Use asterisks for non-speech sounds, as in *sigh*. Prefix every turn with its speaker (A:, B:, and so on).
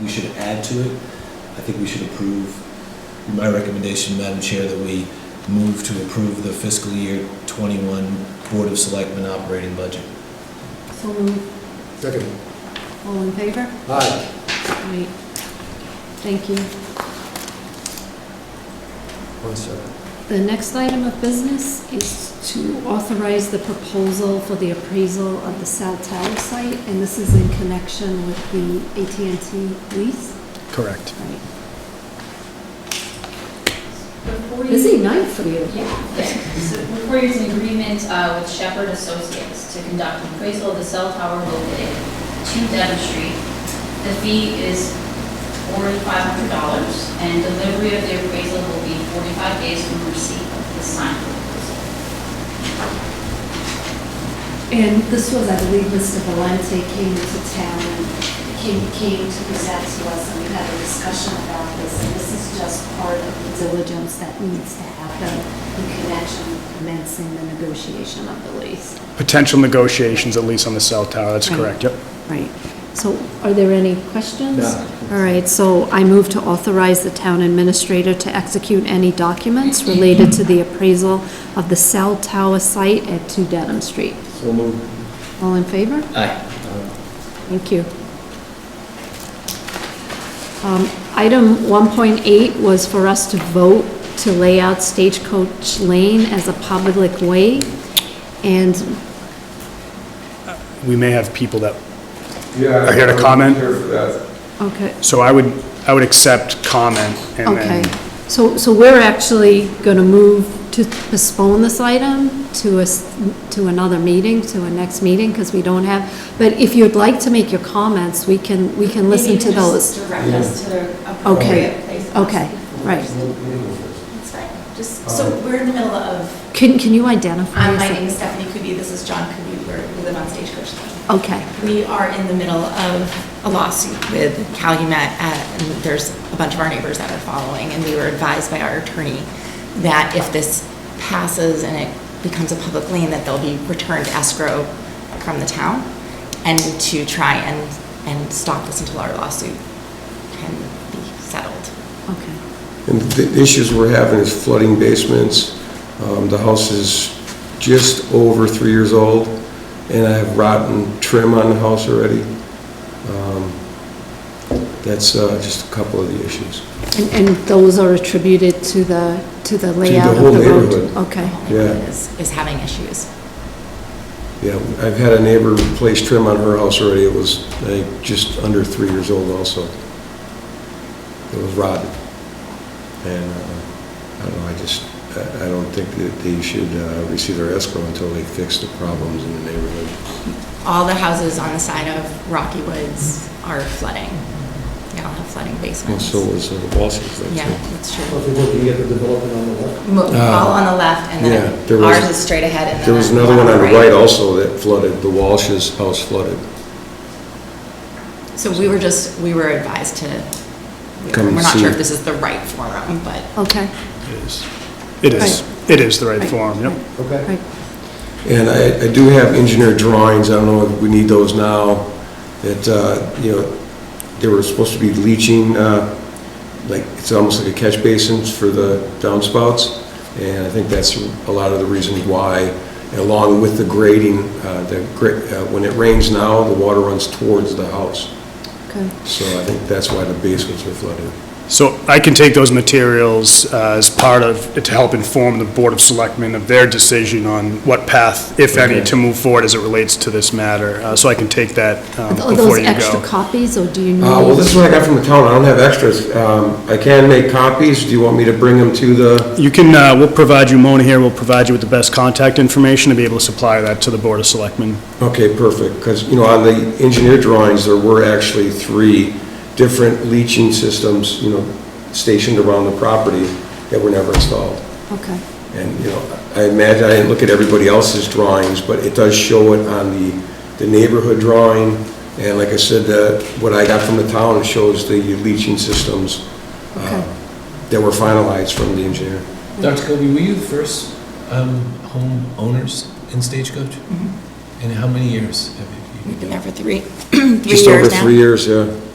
A: we should add to it. I think we should approve, my recommendation, Madam Chair, that we move to approve the fiscal year 21 Board of Selectmen operating budget.
B: So moved.
C: Second.
B: All in favor?
C: Aye.
B: Great. Thank you.
C: One second.
B: The next item of business is to authorize the proposal for the appraisal of the cell tower site, and this is in connection with the at and t lease.
D: Correct.
B: Right.
E: Before you-
B: Busy night for you.
E: Yeah. So Before you, it's an agreement uh, with Shepherd Associates to conduct an appraisal of the cell tower located to Devon Street. The fee is forty-five hundred dollars, and delivery of the appraisal will be forty-five days from receipt of the signed proposal.
B: And this was, I believe, Mr. Valente came into town and came, came to present to us, and we had a discussion about this, and this is just part of the diligence that needs to happen in connection with commencing the negotiation of the lease.
D: Potential negotiations, at least on the cell tower, that's
B: Right.
D: correct, yep.
B: Right. So are there any questions?
C: No.
B: All right, so I move to authorize the town administrator to execute any documents related to the appraisal of the cell tower site at 2 Dedham Street.
C: So moved.
B: All in favor?
A: Aye.
B: Thank you. Um, Item 1.8 was for us to vote to lay out Stagecoach Lane as a public way, and
D: We may have people that,
F: Yeah.
D: I hear the comment.
F: I'm here for that.
B: Okay,
D: so I would, I would accept comment and
B: okay.
D: then,
B: So, so we're actually going to move to postpone this item to a, s- to another meeting, to a next meeting, because we don't have, but if you'd like to make your comments, we can, we can listen to those.
E: Direct us to the
B: Okay.
E: appropriate place.
B: Okay, right.
G: That's fine. Just, so we're in the middle of,
B: Can, can you identify?
G: um, my
B: yourself?
G: name is Stephanie Kuby, this is John Kuby, we're, we live on Stagecoach Lane.
B: Okay,
G: We are in the middle of a lawsuit with Calumet, uh, and there's a bunch of our neighbors that are following, and we were advised by our attorney that if this passes and it becomes a public lane, that they'll be returned escrow from the town, and to try and, and stop this until our lawsuit can be settled.
B: okay.
H: And the issues we're having is flooding basements. Um, The house is just over three years old, and I have rotten trim on the house already. Um, That's uh, just a couple of the issues.
B: And, and those are attributed to the, to the layout of the
H: whole
B: road?
H: neighborhood.
B: Okay,
H: Yeah.
G: Is, is having issues.
H: Yeah, I've had a neighbor replace trim on her house already. It was like, just under three years old also. It was rotted. And, uh, I don't know, I just, I I don't think that they should uh, receive their escrow until they fix the problems in the neighborhood.
G: All the houses on the side of Rocky Woods are flooding. They all have flooding
H: And
G: basements.
H: so was uh, Walsh's, that's
G: Yeah,
H: all.
G: that's true.
C: So if you're looking at the development on the left,
G: Mo- All on the left, and
H: Yeah, there
G: then
H: was-
G: ours is straight ahead, and then.
H: There was another one on the right also that flooded, the Walsh's house flooded.
G: So we were just, we were advised to, we-
H: Come and
G: we're not
H: see.
G: sure if this is the right forum, but
B: okay.
D: it is, it is, it is the right form, yep.
C: okay?
B: Right,
H: And I, I do have engineered drawings, I don't know if we need those now, that, uh, you know, they were supposed to be leaching, uh, like, it's almost like a catch basins for the downspouts, and I think that's a lot of the reason why, along with the grading, uh, the, gra- uh, when it rains now, the water runs towards the house.
B: okay.
H: So I think that's why the basements are flooded.
D: So I can take those materials uh, as part of, to help inform the Board of Selectmen of their decision on what path, if any,
H: Okay.
D: to move forward as it relates to this matter. Uh, So I can take that um,
B: Are
D: before
B: those
D: you
B: extra
D: go.
B: copies, or do you need?
H: Uh, well, this is what I got from the town, I don't have extras, um, I can make copies, do you want me to bring them to the,
D: You can, uh, we'll provide you, Mona here, we'll provide you with the best contact information to be able to supply that to the Board of Selectmen.
H: okay, perfect, because, you know, on the engineer drawings, there were actually three different leaching systems, you know, stationed around the property that were never installed.
B: Okay,
H: And, you know, I imagine, I didn't look at everybody else's drawings, but it does show it on the, the neighborhood drawing. And like I said, the, what I got from the town shows the leaching systems uh,
B: Okay.
H: that were finalized from the engineer.
A: Dr. Kobe, were you the first um, homeowners in Stagecoach? And how many years have you?
G: we've been there for three, *clears throat* three years now.
H: Just over three years, yeah.